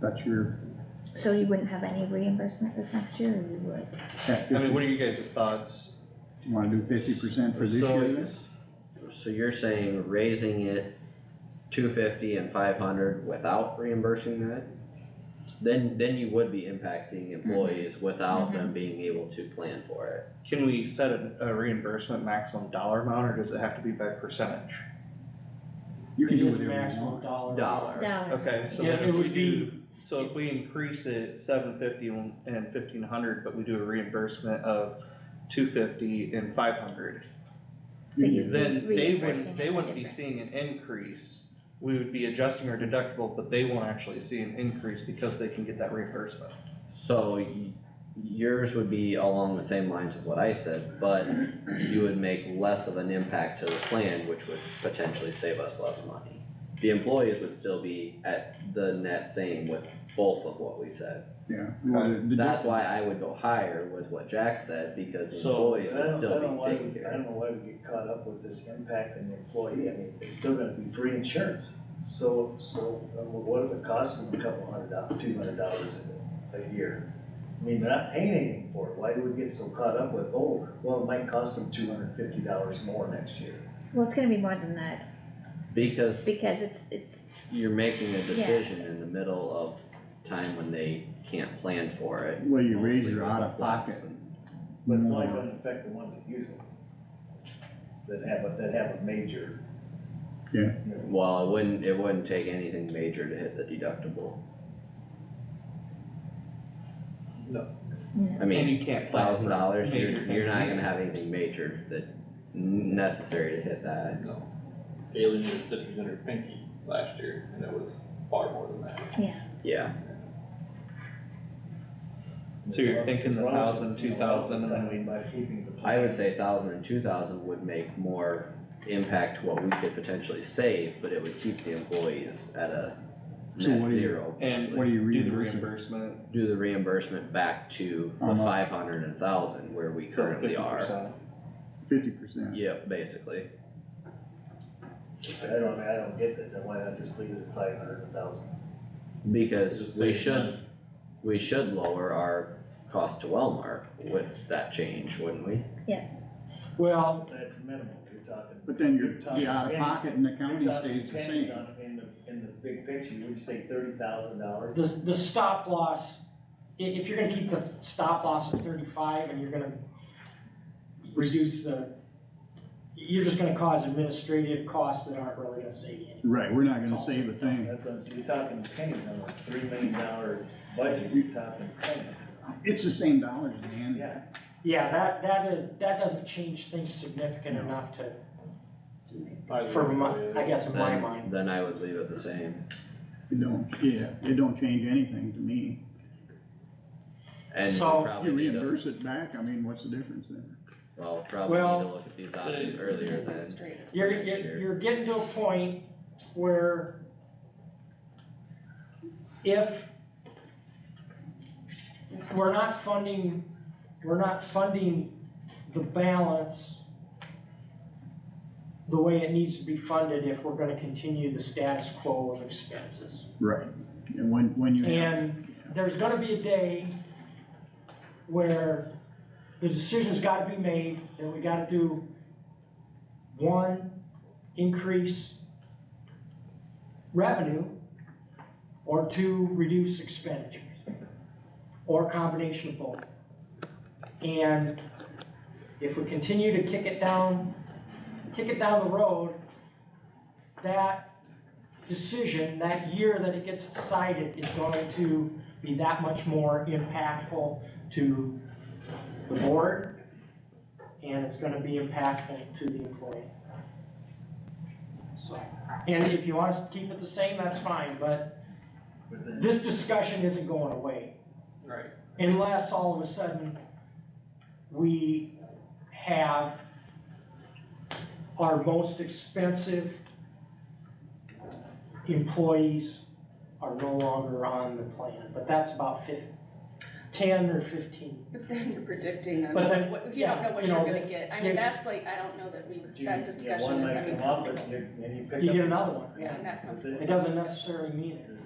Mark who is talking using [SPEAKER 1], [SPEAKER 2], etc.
[SPEAKER 1] That's your,
[SPEAKER 2] So you wouldn't have any reimbursement this next year, or you would?
[SPEAKER 1] that
[SPEAKER 3] I mean,
[SPEAKER 1] fifty,
[SPEAKER 3] what are you guys' thoughts?
[SPEAKER 1] you wanna do fifty percent for this
[SPEAKER 4] So-
[SPEAKER 1] year then?
[SPEAKER 4] So you're saying raising it two fifty and five hundred without reimbursing that? Then, then you would be impacting
[SPEAKER 1] Mm-hmm.
[SPEAKER 4] employees without them being able to plan for it.
[SPEAKER 3] Can we set a a reimbursement maximum dollar amount, or does it have to be by percentage?
[SPEAKER 1] You can do
[SPEAKER 5] It is
[SPEAKER 1] whatever you
[SPEAKER 5] maximum
[SPEAKER 1] want.
[SPEAKER 5] dollar.
[SPEAKER 4] Dollar,
[SPEAKER 2] No,
[SPEAKER 3] Okay, so
[SPEAKER 5] Yeah,
[SPEAKER 3] then
[SPEAKER 5] it
[SPEAKER 3] if we
[SPEAKER 5] would be-
[SPEAKER 3] do, so if we increase it seven fifty and fifteen hundred, but we do a reimbursement of two fifty and five hundred.
[SPEAKER 2] So
[SPEAKER 1] You
[SPEAKER 2] you-
[SPEAKER 1] can-
[SPEAKER 4] Mm-hmm.
[SPEAKER 3] Then they
[SPEAKER 2] Reimbursing
[SPEAKER 3] wouldn't, they
[SPEAKER 2] is
[SPEAKER 3] wouldn't be
[SPEAKER 2] different.
[SPEAKER 3] seeing an increase, we would be adjusting our deductible, but they won't actually see an increase because they can get that reimbursement.
[SPEAKER 4] so y- yours would be along the same lines of what I said, but you would make less of an impact to the plan, which would potentially save us less money. The employees would still be at the net same with both of what we said.
[SPEAKER 1] Yeah. well, the- the-
[SPEAKER 4] That's why I would go higher with what Jack said, because the
[SPEAKER 3] So,
[SPEAKER 4] employees
[SPEAKER 6] I
[SPEAKER 4] would
[SPEAKER 6] don't- I
[SPEAKER 4] still
[SPEAKER 6] don't
[SPEAKER 4] be
[SPEAKER 6] why
[SPEAKER 4] taken
[SPEAKER 6] we- I
[SPEAKER 4] care
[SPEAKER 6] don't know why we get caught up with this impact on the employee, I mean, it's still gonna be free insurance. So, so uh, what if it costs them a couple hundred dollars, two hundred dollars a, a year? I mean, they're not paying anything for it, why do we get so caught up with, oh, well, it might cost them two hundred and fifty dollars more next year?
[SPEAKER 2] well, it's gonna be more than that,
[SPEAKER 4] of, because
[SPEAKER 2] because it's, it's,
[SPEAKER 4] you're making a decision in the middle of time when they can't plan for it.
[SPEAKER 1] Well, you raise
[SPEAKER 4] mostly
[SPEAKER 1] your
[SPEAKER 4] with the
[SPEAKER 1] out of
[SPEAKER 4] flex
[SPEAKER 1] pocket.
[SPEAKER 4] and-
[SPEAKER 6] But it's
[SPEAKER 1] more.
[SPEAKER 6] only gonna affect the ones that use it. That have, a that have a major.
[SPEAKER 1] Yeah.
[SPEAKER 6] you know,
[SPEAKER 4] Well, it wouldn't, it wouldn't take anything major to hit the deductible,
[SPEAKER 2] no.
[SPEAKER 4] I
[SPEAKER 3] And
[SPEAKER 4] mean,
[SPEAKER 3] you can't plan
[SPEAKER 4] thousand
[SPEAKER 3] for
[SPEAKER 4] dollars,
[SPEAKER 3] major
[SPEAKER 4] you're, you're not
[SPEAKER 3] things.
[SPEAKER 4] gonna have anything major that necessary to hit that.
[SPEAKER 7] uh, Galen did stitches in her pinky last year, and it was far more than that.
[SPEAKER 4] Yeah,
[SPEAKER 3] So you're thinking the
[SPEAKER 6] as well as-
[SPEAKER 3] 1,000, 2,000, and then we-
[SPEAKER 6] By keeping the.
[SPEAKER 4] I would say thousand and two thousand would make more impact to what we could potentially save, but it would keep the employees at a
[SPEAKER 1] So what
[SPEAKER 4] net
[SPEAKER 1] do you-
[SPEAKER 4] zero.
[SPEAKER 3] And
[SPEAKER 1] What do you
[SPEAKER 3] do the
[SPEAKER 1] reimburse?
[SPEAKER 3] reimbursement.
[SPEAKER 4] do the reimbursement back to
[SPEAKER 1] How
[SPEAKER 4] the
[SPEAKER 1] much?
[SPEAKER 4] five hundred and thousand where we
[SPEAKER 3] so
[SPEAKER 4] currently are.
[SPEAKER 3] 50%.
[SPEAKER 1] Fifty percent.
[SPEAKER 4] Yep, basically.
[SPEAKER 6] I don't, I don't get that, then why not just leave it at five hundred, a thousand?
[SPEAKER 4] Because we should, we should lower our cost to Wellmark with that change, wouldn't we?
[SPEAKER 5] Well,
[SPEAKER 6] That's minimal, you're talking.
[SPEAKER 1] But then your,
[SPEAKER 6] you're talking
[SPEAKER 1] the out of
[SPEAKER 6] pennies.
[SPEAKER 1] pocket in the
[SPEAKER 6] You're
[SPEAKER 1] county
[SPEAKER 6] talking
[SPEAKER 1] stays the
[SPEAKER 6] pennies
[SPEAKER 1] same.
[SPEAKER 6] on- In the, in the big picture, would you say thirty thousand dollars?
[SPEAKER 5] the, the stop loss, i- if you're gonna keep the stop loss at thirty-five and you're gonna reduce the, you're just gonna cause administrative costs that aren't really gonna save you anything.
[SPEAKER 1] Right, we're not gonna save a thing.
[SPEAKER 6] That's, what I'm saying. you're talking pennies on a three million dollar budget, you're talking pennies.
[SPEAKER 1] It's the same dollars, man.
[SPEAKER 6] Yeah,
[SPEAKER 5] Yeah, that, that is, that doesn't change things significant
[SPEAKER 1] No.
[SPEAKER 5] enough to,
[SPEAKER 7] Either
[SPEAKER 5] for
[SPEAKER 7] way,
[SPEAKER 5] my, I guess in my
[SPEAKER 4] Then-
[SPEAKER 5] mind.
[SPEAKER 4] Then I would leave it the same.
[SPEAKER 1] It don't, yeah, it don't change anything to me.
[SPEAKER 4] And we
[SPEAKER 5] So-
[SPEAKER 1] If
[SPEAKER 4] probably
[SPEAKER 1] you
[SPEAKER 4] need to,
[SPEAKER 1] reimburse it back, I mean, what's the difference then?
[SPEAKER 4] well, probably need
[SPEAKER 5] Well-
[SPEAKER 4] to look at these options earlier than.
[SPEAKER 5] You're,
[SPEAKER 4] next
[SPEAKER 5] you're,
[SPEAKER 4] year.
[SPEAKER 5] you're getting to a point where if we're not funding, we're not funding the balance the way it needs to be funded if we're gonna continue the status quo of expenses.
[SPEAKER 1] Right, and when, when you have,
[SPEAKER 5] And there's gonna be a day where the decision's gotta be made, and we gotta do one, increase revenue, or two, reduce expenditures, or a combination of both. And if we continue to kick it down, kick it down the road, that decision, that year that it gets decided is going to be that much more impactful to the board, and it's gonna be impactful to the employee. So, and if you want us to keep it the same, that's fine, but
[SPEAKER 6] but then.
[SPEAKER 5] this discussion isn't going away
[SPEAKER 7] Right.
[SPEAKER 5] unless all of a sudden we have our most expensive employees are no longer on the plan, but that's about fif- ten or fifteen.
[SPEAKER 8] But then you're predicting on
[SPEAKER 5] But then-
[SPEAKER 8] what, you don't know what
[SPEAKER 5] yeah, you
[SPEAKER 8] you're
[SPEAKER 5] know,
[SPEAKER 8] gonna get, I
[SPEAKER 5] you-
[SPEAKER 8] mean, that's like, I don't know that we,
[SPEAKER 6] you-
[SPEAKER 8] that
[SPEAKER 6] yeah,
[SPEAKER 8] discussion
[SPEAKER 6] One
[SPEAKER 8] is,
[SPEAKER 6] might
[SPEAKER 8] I mean.
[SPEAKER 6] come up and you, and you pick up.
[SPEAKER 5] You get another one,
[SPEAKER 8] Yeah,
[SPEAKER 5] yeah.
[SPEAKER 8] I'm
[SPEAKER 6] But
[SPEAKER 8] not
[SPEAKER 6] then-
[SPEAKER 5] It doesn't necessarily mean
[SPEAKER 6] It
[SPEAKER 5] it.